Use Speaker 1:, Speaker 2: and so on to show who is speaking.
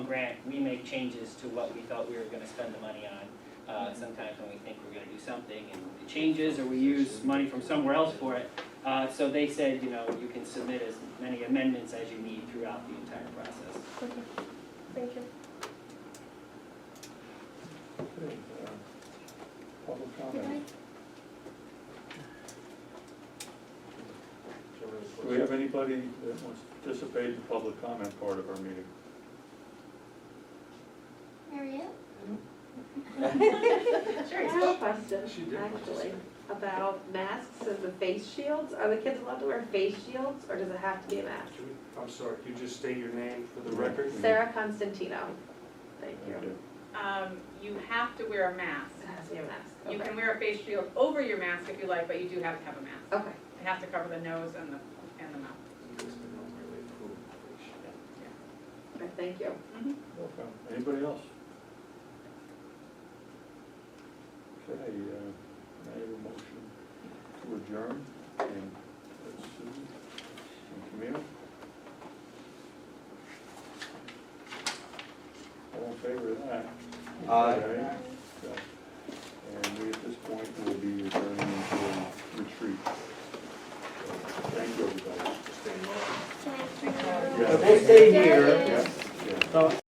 Speaker 1: grant, we make changes to what we thought we were gonna spend the money on. Uh, sometimes when we think we're gonna do something and it changes, or we use money from somewhere else for it. Uh, so they said, you know, you can submit as many amendments as you need throughout the entire process.
Speaker 2: Okay, thank you.
Speaker 3: Okay, uh, Public comment. Do we have anybody that wants to participate in the public comment part of our meeting?
Speaker 2: Mariette?
Speaker 4: I have a question, actually, about masks and the face shields. Are the kids allowed to wear face shields, or does it have to be a mask?
Speaker 5: I'm sorry, could you just state your name for the record?
Speaker 4: Sarah Constantino. Thank
Speaker 3: Okay.
Speaker 4: you.
Speaker 6: Um, you have to wear a mask.
Speaker 4: It has to be a mask.
Speaker 6: You
Speaker 4: Okay.
Speaker 6: can wear a face shield over your mask if you like, but you do have to have a mask.
Speaker 4: Okay.
Speaker 6: It has to cover the nose and the, and the mouth.
Speaker 4: Okay, Thank you.
Speaker 3: Welcome. Anybody else? Okay, uh, I have a motion to adjourn, and that's Susan and Camille. All in favor of that? Aye. Okay. And we, at this point, will be adjourning into retreat. Thank you, everybody.
Speaker 2: Thank you.
Speaker 3: Yeah.
Speaker 7: We'll stay here.
Speaker 3: Yeah, yeah.